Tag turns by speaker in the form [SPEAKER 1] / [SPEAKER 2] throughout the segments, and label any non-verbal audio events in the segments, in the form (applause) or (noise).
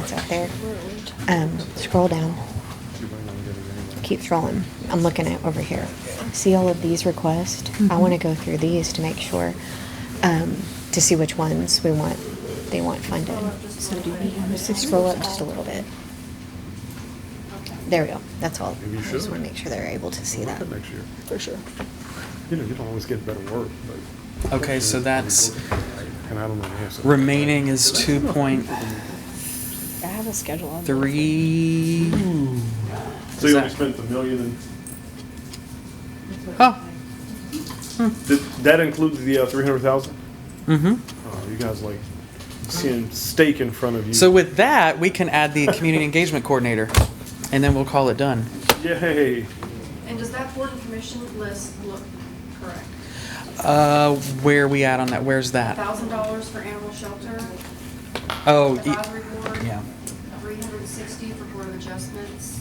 [SPEAKER 1] it's out there. Um, scroll down. Keep scrolling. I'm looking at over here. See all of these requests? I want to go through these to make sure, um, to see which ones we want, they want funded.
[SPEAKER 2] So do we have a system?
[SPEAKER 1] Scroll up just a little bit. There we go. That's all.
[SPEAKER 3] Maybe you
[SPEAKER 1] I just
[SPEAKER 3] should.
[SPEAKER 1] want to make sure they're able to see
[SPEAKER 3] Look
[SPEAKER 1] that.
[SPEAKER 3] at Next year.
[SPEAKER 1] For sure.
[SPEAKER 3] You know, you don't always get better work, but.
[SPEAKER 4] Okay, so that's-
[SPEAKER 3] And I don't know the answer.
[SPEAKER 4] Remaining is two point
[SPEAKER 2] I have a schedule on.
[SPEAKER 4] three.
[SPEAKER 3] So you only spent a million and,
[SPEAKER 4] Oh,
[SPEAKER 3] did, that includes the, uh, three hundred thousand?
[SPEAKER 4] mm-hmm.
[SPEAKER 3] Oh, you guys like seeing steak in front of you.
[SPEAKER 4] So with that, we can add the community engagement coordinator, and then we'll call it done.
[SPEAKER 3] Yay.
[SPEAKER 5] And does that board and commission list look correct?
[SPEAKER 4] Uh, where are we at on that? Where's that?
[SPEAKER 5] Thousand dollars for animal shelter,
[SPEAKER 4] Oh, y-
[SPEAKER 5] advisory board.
[SPEAKER 4] yeah.
[SPEAKER 5] Three hundred and sixty for board of adjustments.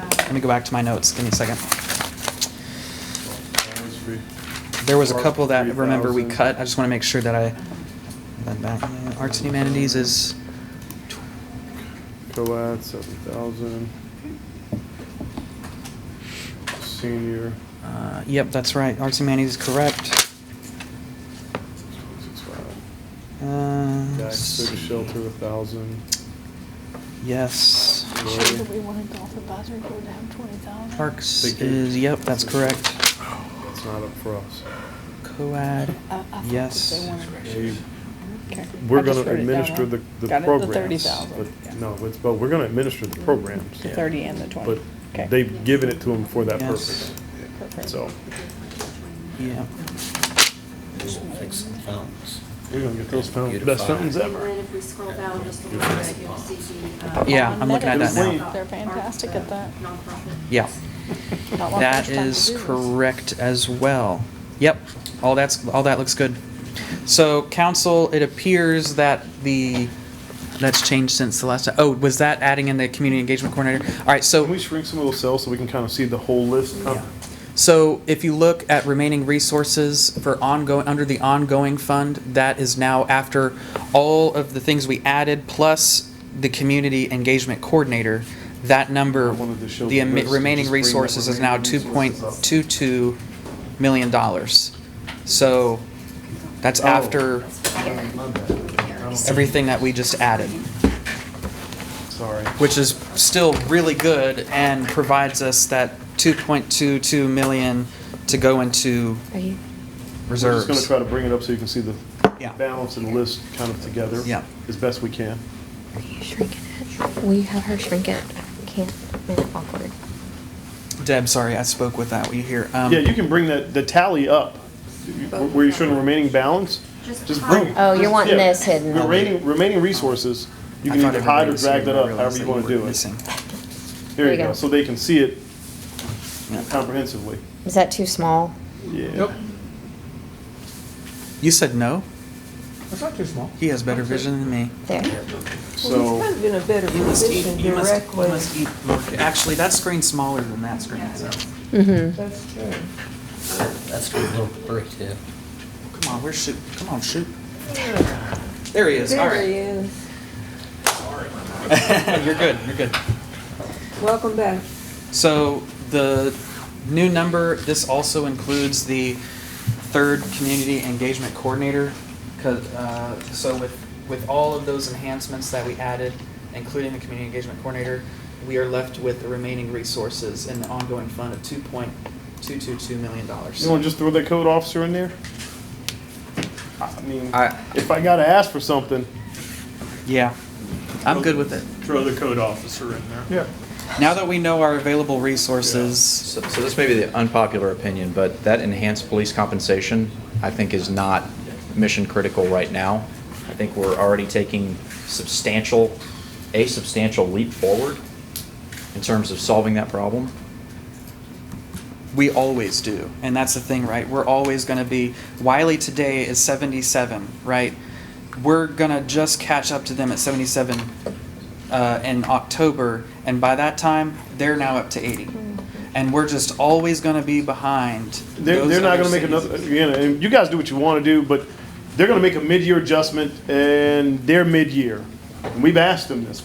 [SPEAKER 5] um,
[SPEAKER 4] Let me go back to my notes. Give me a second. There was a couple that, remember, we cut. I just want to make sure that I, that back. Yeah, Arts and humanities is,
[SPEAKER 3] Co-ed, seven thousand. Senior,
[SPEAKER 4] uh, yep, that's right. Arts and humanities is correct.
[SPEAKER 3] six five.
[SPEAKER 4] Uh,
[SPEAKER 3] Guys, six
[SPEAKER 4] see.
[SPEAKER 3] shelter, a thousand.
[SPEAKER 4] Yes.
[SPEAKER 2] Sure that we wanted golf advisory board to have twenty thousand.
[SPEAKER 4] Parks
[SPEAKER 3] Thank you.
[SPEAKER 4] is, yep, that's correct.
[SPEAKER 3] That's not up for us.
[SPEAKER 4] Coad,
[SPEAKER 2] I- I thought that Uh, they
[SPEAKER 4] yes.
[SPEAKER 2] wanted-
[SPEAKER 3] We-
[SPEAKER 2] Okay.
[SPEAKER 3] We're
[SPEAKER 2] I just
[SPEAKER 3] gonna
[SPEAKER 2] wrote it down
[SPEAKER 3] administer
[SPEAKER 2] wrong.
[SPEAKER 3] the, the
[SPEAKER 2] Got it,
[SPEAKER 3] programs.
[SPEAKER 2] thirty thousand,
[SPEAKER 3] but- No, it's, but we're gonna administer the programs,
[SPEAKER 2] The thirty and the twenty.
[SPEAKER 3] but
[SPEAKER 2] Okay.
[SPEAKER 3] they've given it to them for that
[SPEAKER 4] Yes.
[SPEAKER 3] purpose,
[SPEAKER 2] Perfect.
[SPEAKER 3] so.
[SPEAKER 4] Yeah.
[SPEAKER 6] Fix the phones.
[SPEAKER 3] We're gonna get those fountains,
[SPEAKER 6] Beautify.
[SPEAKER 3] best fountains
[SPEAKER 5] And
[SPEAKER 3] ever.
[SPEAKER 5] then if we scroll down just a little bit, you'll see the. uh,
[SPEAKER 4] Yeah,
[SPEAKER 2] On
[SPEAKER 4] I'm looking at that
[SPEAKER 2] Medicaid,
[SPEAKER 3] now.
[SPEAKER 2] They're fantastic at that.
[SPEAKER 5] Nonprofit.
[SPEAKER 4] Yeah.
[SPEAKER 2] Not what
[SPEAKER 4] That
[SPEAKER 2] we're trying to
[SPEAKER 4] is
[SPEAKER 2] do
[SPEAKER 4] correct as well. Yep, all that's, all that looks good. So council, it appears that the, that's changed since the last time. Oh, was that adding in the community engagement coordinator? All right, so.
[SPEAKER 3] Can we shrink some of those cells so we can kind of see the whole list? huh?
[SPEAKER 4] So if you look at remaining resources for ongoing, under the ongoing fund, that is now after all of the things we added, plus the community engagement coordinator, that number,
[SPEAKER 3] I wanted to show
[SPEAKER 4] the
[SPEAKER 3] the
[SPEAKER 4] emi-
[SPEAKER 3] list and
[SPEAKER 4] remaining
[SPEAKER 3] just bring the
[SPEAKER 4] resources is now two
[SPEAKER 3] remaining
[SPEAKER 4] point
[SPEAKER 3] resources up.
[SPEAKER 4] two two million dollars. So that's
[SPEAKER 3] Oh.
[SPEAKER 4] after everything that we just added,
[SPEAKER 3] Sorry.
[SPEAKER 4] which is still really good and provides us that two point two two million to go into
[SPEAKER 1] Are you?
[SPEAKER 4] reserves.
[SPEAKER 3] We're just gonna try to bring it up so you can see the
[SPEAKER 4] Yeah.
[SPEAKER 3] balance and list kind of together.
[SPEAKER 4] Yeah.
[SPEAKER 3] As best we can.
[SPEAKER 1] Are you shrinking it? Will you have her shrink it? I can't. Made it awkward.
[SPEAKER 4] Deb, sorry, I spoke with that. Will you hear? Um,
[SPEAKER 3] Yeah, you can bring that, the tally up, where you're showing remaining balance.
[SPEAKER 5] Just
[SPEAKER 3] Just
[SPEAKER 5] hide.
[SPEAKER 3] bring.
[SPEAKER 1] Oh, you're
[SPEAKER 3] just-
[SPEAKER 1] wanting
[SPEAKER 3] yeah.
[SPEAKER 1] this hidden.
[SPEAKER 3] Remaining, remaining resources, you
[SPEAKER 4] I
[SPEAKER 3] can
[SPEAKER 4] thought
[SPEAKER 3] either
[SPEAKER 4] everybody
[SPEAKER 3] hide or
[SPEAKER 4] was
[SPEAKER 3] drag
[SPEAKER 4] here,
[SPEAKER 3] that
[SPEAKER 4] but I
[SPEAKER 3] up,
[SPEAKER 4] realized
[SPEAKER 3] however
[SPEAKER 4] that
[SPEAKER 3] you wanna
[SPEAKER 4] were
[SPEAKER 3] do it.
[SPEAKER 4] missing.
[SPEAKER 3] There you go, so they can see it
[SPEAKER 4] Yeah.
[SPEAKER 3] comprehensively.
[SPEAKER 1] Is that too small?
[SPEAKER 3] Yeah.
[SPEAKER 4] You said no.
[SPEAKER 7] It's not too small.
[SPEAKER 4] He has better vision than me.
[SPEAKER 1] There.
[SPEAKER 3] So.
[SPEAKER 7] in a better position directly.
[SPEAKER 4] eat more. Actually, that screen's smaller than that screen. So.
[SPEAKER 1] Mm-hmm.
[SPEAKER 7] That's true.
[SPEAKER 6] That's a good little break there.
[SPEAKER 4] Come on, we're shoot. Come on, shoot. There he is. All
[SPEAKER 7] There he
[SPEAKER 4] right.
[SPEAKER 7] is.
[SPEAKER 4] (laughs) you're good. You're good.
[SPEAKER 7] Welcome back.
[SPEAKER 4] So the new number. This also includes the third community engagement coordinator. 'cause, uh, so with with all of those enhancements that we added, including the community engagement coordinator, we are left with the remaining resources in the ongoing fund of two point two two two million dollars.
[SPEAKER 3] You want to just throw that code officer in there? I mean,
[SPEAKER 4] I-
[SPEAKER 3] if I gotta ask for something.
[SPEAKER 4] Yeah, I'm good with it.
[SPEAKER 3] Throw the code officer in there. Yeah.
[SPEAKER 4] Now that we know our available resources,
[SPEAKER 8] So so this may be the unpopular opinion, but that enhanced police compensation, I think, is not mission critical right now. I think we're already taking substantial, a substantial leap forward in terms of solving that problem.
[SPEAKER 4] we always do, and that's the thing, right? We're always going to be Wiley today is 77, right? We're gonna just catch up to them at 77 uh, in October, and by that time, they're now up to 80, and we're just always gonna be behind.
[SPEAKER 3] They're,
[SPEAKER 4] those
[SPEAKER 3] they're not
[SPEAKER 4] other
[SPEAKER 3] gonna make
[SPEAKER 4] cities.
[SPEAKER 3] another, again, and you guys do what you wanna do, but they're gonna make a mid-year adjustment and they're mid-year. And We've asked them this